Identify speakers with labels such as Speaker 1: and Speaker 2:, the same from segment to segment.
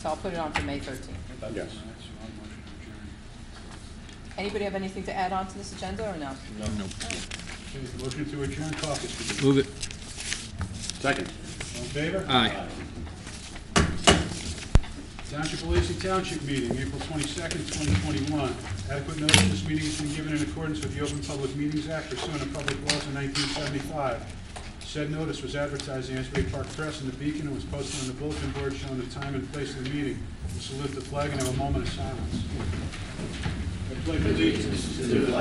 Speaker 1: So I'll put it on for May 13th.
Speaker 2: Yes.
Speaker 1: Anybody have anything to add on to this agenda or no?
Speaker 2: Okay, Motion to adjourn caucus.
Speaker 3: Move it.
Speaker 2: Second. All in favor?
Speaker 3: Aye.
Speaker 2: Township of Lacey Township meeting, April twenty-second, twenty twenty-one. Adequate notice of this meeting has been given in accordance with the Open Public Meetings Act pursuant to public laws in nineteen seventy-five. Said notice was advertised in the Asbury Park Press and the Beacon and was posted on the bulletin board showing the time and place of the meeting. We salute the flag and have a moment of silence. I pledge allegiance to the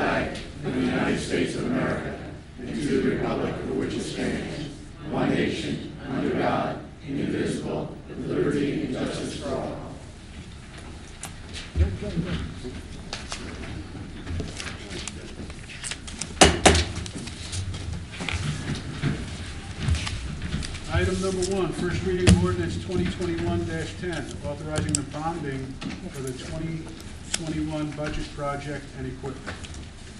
Speaker 2: Item number one, first reading of ordinance twenty twenty-one ten, authorizing the bonding for the twenty twenty-one budget project and equipment.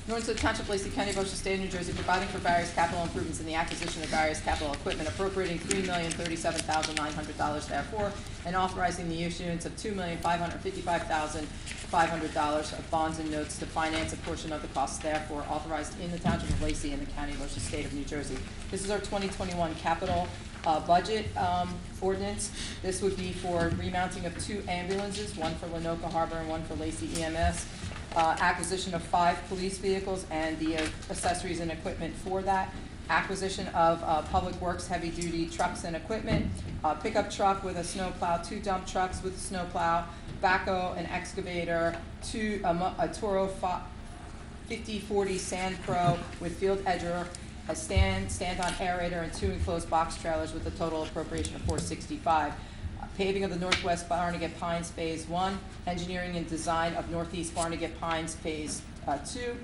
Speaker 1: In order to the Township of Lacey County, Ocean State of New Jersey, providing for various capital improvements in the acquisition of various capital equipment appropriating three million thirty-seven thousand nine hundred dollars therefore, and authorizing the issuance of two million five hundred fifty-five thousand five hundred dollars of bonds and notes to finance a portion of the costs therefore authorized in the Township of Lacey and the County of Ocean State of New Jersey. This is our twenty twenty-one capital uh, budget um, ordinance. This would be for remounting of two ambulances, one for Lenoka Harbor and one for Lacey E EMS, uh, acquisition of five police vehicles and the uh, accessories and equipment for that, acquisition of uh, Public Works heavy-duty trucks and equipment, uh, pickup truck with a snowplow, two dump trucks with a snowplow, backhoe, an excavator, two, a mo- a Toro fi- 5040 Sand Pro with field edger, a stand, stand-on aerator, and two enclosed box trailers with a total appropriation of 465. Uh, Paving of the Northwest Barnegat Pines Phase 1, engineering and design of Northeast Barnegat Pines Phase uh, 2,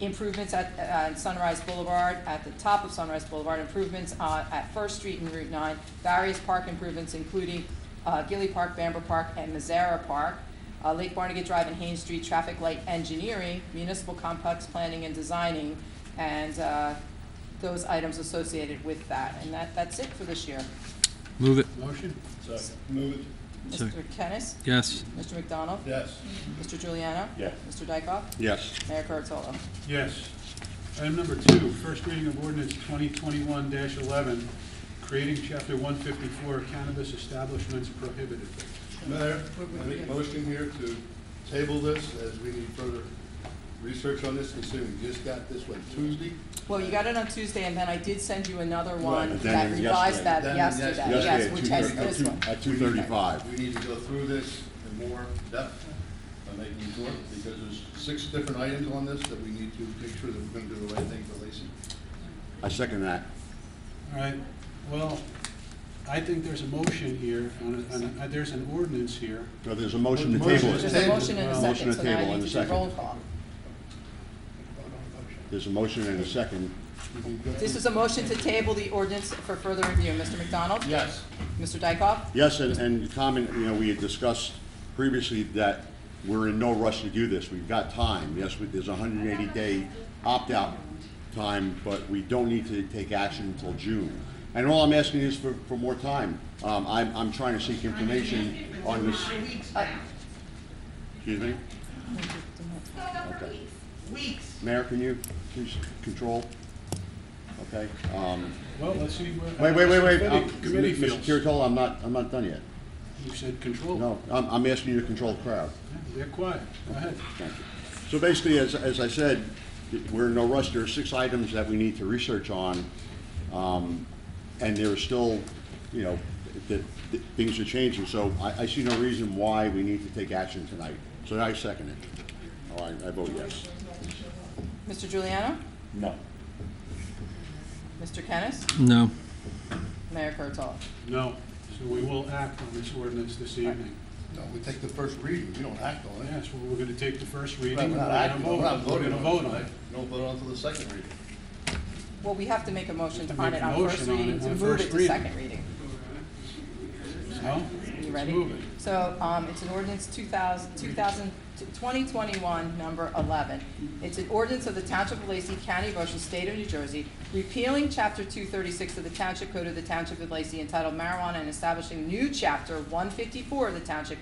Speaker 1: improvements at uh, Sunrise Boulevard, at the top of Sunrise Boulevard, improvements uh, at First Street and Route 9, various park improvements including uh, Gilly Park, Bamber Park, and Mazzara Park, uh, Lake Barnegat Drive and Haines Street, traffic light engineering, municipal complex planning and designing, and uh, those items associated with that. And that, that's it for this year.
Speaker 3: Move it.
Speaker 2: Motion?
Speaker 4: Second. Move it.
Speaker 3: Sir.
Speaker 1: Mr. Kennis?
Speaker 3: Yes.
Speaker 1: Mr. McDonald?
Speaker 4: Yes.
Speaker 1: Mr. Juliano?
Speaker 2: Yes.
Speaker 1: Mr. Dykoff?
Speaker 2: Yes.
Speaker 1: Mayor Kurtolo?
Speaker 2: Yes. Item number two, first reading of ordinance twenty twenty-one eleven, creating chapter one fifty-four cannabis establishments prohibited.
Speaker 4: Mayor, I make a motion here to table this as we need further research on this considering we just got this one Tuesday.
Speaker 1: Well, you got it on Tuesday, and then I did send you another
Speaker 4: Right,
Speaker 1: one
Speaker 5: then
Speaker 1: that
Speaker 5: it was
Speaker 1: revised that
Speaker 4: yesterday.
Speaker 1: yesterday.
Speaker 4: Then it was
Speaker 1: Uh, Yes,
Speaker 5: Yesterday
Speaker 1: which has
Speaker 5: at
Speaker 1: this
Speaker 5: two,
Speaker 1: one.
Speaker 5: at two thirty-five.
Speaker 4: We need to go through this in more depth, I'm making sure, because there's six different items on this that we need to make sure that we're gonna do the right thing for Lacey.
Speaker 5: I second that.
Speaker 2: All right, well, I think there's a motion here, on a- on a- there's an ordinance here.
Speaker 5: No, there's a motion to
Speaker 4: Motion.
Speaker 5: table
Speaker 1: There's
Speaker 5: it.
Speaker 1: a motion and a
Speaker 2: Motion
Speaker 1: second,
Speaker 5: to
Speaker 1: so now
Speaker 5: table
Speaker 1: I
Speaker 5: and
Speaker 1: need
Speaker 5: a
Speaker 1: to do
Speaker 5: second.
Speaker 1: roll call.
Speaker 5: There's a motion and a second.
Speaker 1: This is a motion to table the ordinance for further review. Mr. McDonald?
Speaker 4: Yes.
Speaker 1: Mr. Dykoff?
Speaker 5: Yes, and, and comment, you know, we had discussed previously that we're in no rush to do this. We've got time. Yes, we- there's a hundred and eighty day opt-out time, but we don't need to take action until June. And all I'm asking is for, for more time. Um, I'm, I'm trying to seek information on this,
Speaker 6: Weeks
Speaker 1: Uh,
Speaker 6: now,
Speaker 5: excuse me? Okay.
Speaker 6: weeks.
Speaker 5: Mayor, can you please control? Okay, um,
Speaker 2: Well, let's see. what-
Speaker 5: Wait, wait, wait, wait.
Speaker 2: Committee-
Speaker 5: Um,
Speaker 2: Committee
Speaker 5: Mr.
Speaker 2: feels.
Speaker 5: Curatolo, I'm not, I'm not done yet.
Speaker 2: You said control.
Speaker 5: No, I'm, I'm asking you to control the crowd.
Speaker 2: They're quiet. Go ahead.
Speaker 5: Thank you. So basically, as, as I said, we're in no rush. There are six items that we need to research on. Um, and there are still, you know, that, that things are changing. So I, I see no reason why we need to take action tonight. So I second it. All right, I vote yes.
Speaker 1: Mr. Juliano?
Speaker 5: No.
Speaker 1: Mr. Kennis?
Speaker 3: No.
Speaker 1: Mayor Kurtolo?
Speaker 2: No, so we will act on this ordinance this evening.
Speaker 4: No, we take the first reading, we don't act on it.
Speaker 2: Yes, well, we're gonna take the first
Speaker 4: Right,
Speaker 2: reading. and
Speaker 4: We're not acting, on it. we're not
Speaker 2: We're
Speaker 4: voting
Speaker 2: gonna
Speaker 4: on it.
Speaker 2: vote on it.
Speaker 4: We don't vote on it until the second reading.
Speaker 1: Well, we have to make a motion
Speaker 2: have to
Speaker 1: on
Speaker 2: make
Speaker 1: it
Speaker 2: a
Speaker 1: on first
Speaker 2: motion on it
Speaker 1: reading to
Speaker 2: on
Speaker 1: move
Speaker 2: first
Speaker 1: it to
Speaker 2: reading.
Speaker 1: second reading.
Speaker 2: So,
Speaker 1: You
Speaker 2: let's
Speaker 1: ready?
Speaker 2: move it.
Speaker 1: So, um, it's an ordinance 2000 2000 2021, number 11. It's an ordinance of the Township of Lacey, County of Ocean, State of New Jersey, repealing Chapter 236 of the Township Code of the Township of Lacey entitled Marijuana and establishing new Chapter 154 of the Township